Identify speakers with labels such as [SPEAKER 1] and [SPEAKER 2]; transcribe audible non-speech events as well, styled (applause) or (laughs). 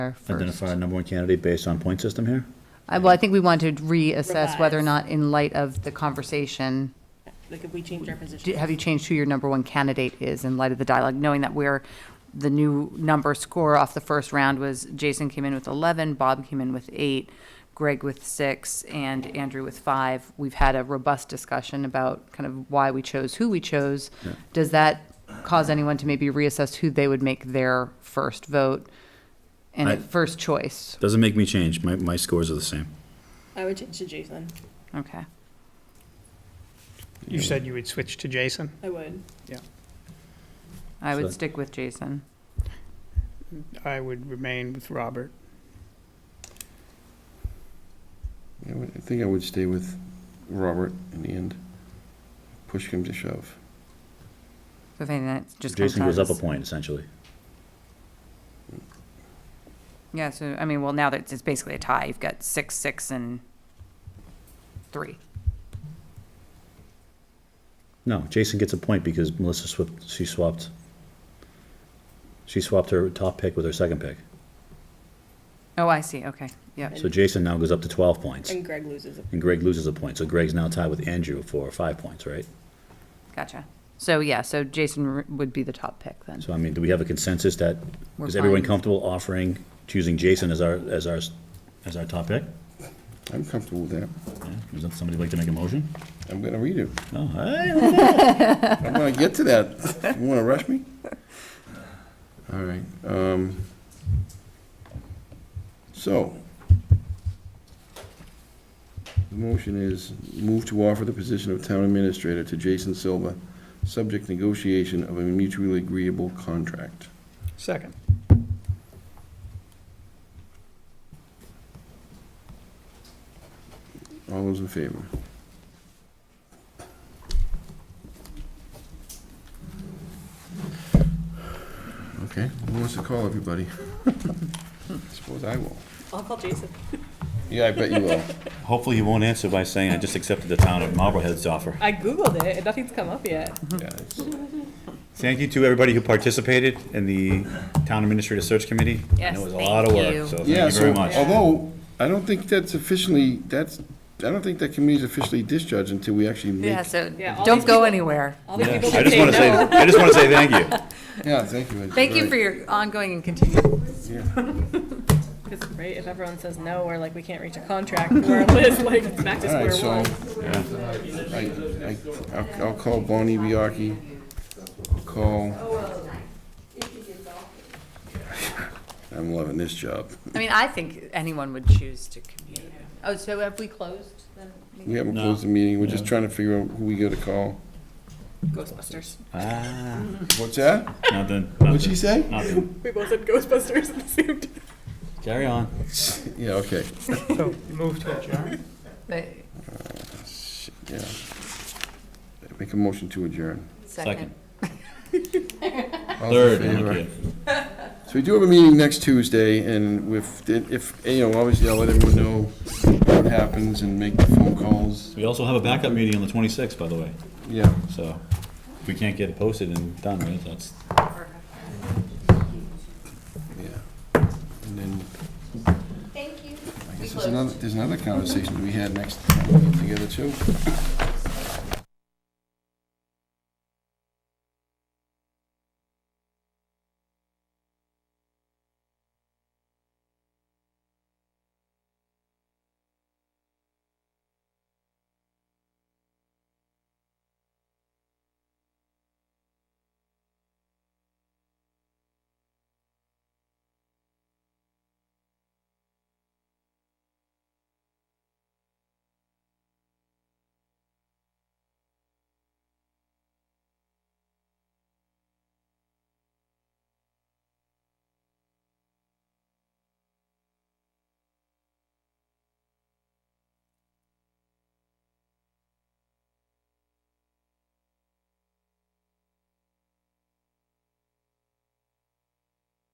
[SPEAKER 1] our first.
[SPEAKER 2] Identify a number one candidate based on point system here?
[SPEAKER 1] I- Well, I think we want to reassess whether or
[SPEAKER 3] Revise.
[SPEAKER 1] not, in light of the conversation,
[SPEAKER 3] Like if we change our
[SPEAKER 1] do-
[SPEAKER 3] position.
[SPEAKER 1] have you changed who your number one candidate is in light of the dialogue, knowing that we're, the new number score off the first round was Jason came in with 11, Bob came in with eight, Greg with six, and Andrew with five. We've had a robust discussion about kind of why we chose who we chose. Does that cause anyone to maybe reassess who they would make their first vote
[SPEAKER 2] I-
[SPEAKER 1] and first choice?
[SPEAKER 2] Doesn't make me change. My, my scores are the same.
[SPEAKER 3] I would change to Jason.
[SPEAKER 1] Okay.
[SPEAKER 4] You said you would switch to Jason.
[SPEAKER 3] I would.
[SPEAKER 1] I
[SPEAKER 2] So-
[SPEAKER 1] would stick with Jason.
[SPEAKER 4] I would remain with Robert.
[SPEAKER 5] I would- I think I would stay with Robert in the end. Push him to shove.
[SPEAKER 1] So if anything, that just comes
[SPEAKER 2] Jason
[SPEAKER 1] out
[SPEAKER 2] goes up a
[SPEAKER 1] as-
[SPEAKER 2] point essentially.
[SPEAKER 1] Yeah, so, I mean, well, now that it's basically a tie, you've got six, six, and three.
[SPEAKER 2] No, Jason gets a point because Melissa swapped, she swapped, she swapped her top pick with her second pick.
[SPEAKER 1] Oh, I see, okay, yep.
[SPEAKER 2] So Jason now goes up to twelve points
[SPEAKER 3] And Greg loses. a-
[SPEAKER 2] and Greg loses a point. So Greg's now tied with Andrew for five points, right?
[SPEAKER 1] Gotcha. So, yeah, so Jason r- would be the top pick then.
[SPEAKER 2] So I mean, do we have a consensus that,
[SPEAKER 1] We're
[SPEAKER 2] is everyone
[SPEAKER 1] fine.
[SPEAKER 2] comfortable offering, choosing Jason as our, as our, as our top pick?
[SPEAKER 5] I'm comfortable with that.
[SPEAKER 2] Yeah? Is that somebody like to make a motion?
[SPEAKER 5] I'm gonna read it.
[SPEAKER 2] No, I-
[SPEAKER 5] I'm gonna get to that. You wanna rush me? All right, um, so. The motion is move to offer the position of town administrator to Jason Silva, subject negotiation of a mutually agreeable contract.
[SPEAKER 4] Second.
[SPEAKER 5] All those in favor? Okay, who wants to call (laughs) everybody? Suppose I will.
[SPEAKER 3] I'll call Jason.
[SPEAKER 5] Yeah, I bet you will.
[SPEAKER 2] Hopefully he won't answer by saying, I just accepted the town of Marblehead's offer.
[SPEAKER 3] I Googled it and nothing's come up yet.
[SPEAKER 5] Yeah, it's-
[SPEAKER 2] Thank you to everybody who participated in the Town Administrator Search Committee. I
[SPEAKER 1] Yes,
[SPEAKER 2] know it was a lot of
[SPEAKER 1] thank you.
[SPEAKER 2] work, so thank
[SPEAKER 5] Yeah,
[SPEAKER 2] you very
[SPEAKER 5] so,
[SPEAKER 2] much.
[SPEAKER 5] although, I don't think that's officially, that's, I don't think that committee's officially discharged until we actually make.
[SPEAKER 1] Yeah, so
[SPEAKER 3] Yeah, all
[SPEAKER 1] don't
[SPEAKER 3] these
[SPEAKER 1] go
[SPEAKER 3] people-
[SPEAKER 1] anywhere.
[SPEAKER 3] All the
[SPEAKER 2] Yeah.
[SPEAKER 3] people
[SPEAKER 2] I
[SPEAKER 3] that
[SPEAKER 2] just want to say,
[SPEAKER 3] say no.
[SPEAKER 2] I just want to say
[SPEAKER 1] (laughs)
[SPEAKER 2] thank you.
[SPEAKER 5] Yeah, thank you.
[SPEAKER 1] Thank you for your ongoing and continued.
[SPEAKER 3] 'Cause, Right, if everyone says no, or like we can't reach a contract, we're list, like it's back to
[SPEAKER 5] All right,
[SPEAKER 3] square
[SPEAKER 5] so,
[SPEAKER 3] one.
[SPEAKER 5] I, I, I'll, I'll call Bonnie Biaki, I'll call. (laughs) I'm loving this job.
[SPEAKER 1] I mean, I think anyone would choose to commute. Oh, so have we closed then?
[SPEAKER 5] We haven't closed the meeting, we're just trying to figure out who we gotta call.
[SPEAKER 3] Ghostbusters.
[SPEAKER 2] Ah,
[SPEAKER 5] What's that?
[SPEAKER 2] Nothing,
[SPEAKER 5] What'd she
[SPEAKER 2] nothing,
[SPEAKER 5] say?
[SPEAKER 2] nothing.
[SPEAKER 3] We both said Ghostbusters at the same time.
[SPEAKER 2] Carry on.
[SPEAKER 5] Yeah, okay,
[SPEAKER 4] So move to adjourn.
[SPEAKER 1] The
[SPEAKER 5] yeah. Make a motion to adjourn.
[SPEAKER 1] Second.
[SPEAKER 5] All in
[SPEAKER 2] Third,
[SPEAKER 5] favor?
[SPEAKER 2] thank you.
[SPEAKER 5] So we do have a meeting next Tuesday, and with, if, you know, obviously I'll let everyone know what happens and make the phone calls.
[SPEAKER 2] We also have a backup meeting on the 26th, by the way,
[SPEAKER 5] Yeah,
[SPEAKER 2] so if we can't get it posted and done, right, that's,
[SPEAKER 5] yeah. And then. Thank you. I guess there's another, there's another conversation to be had next, time we get together too.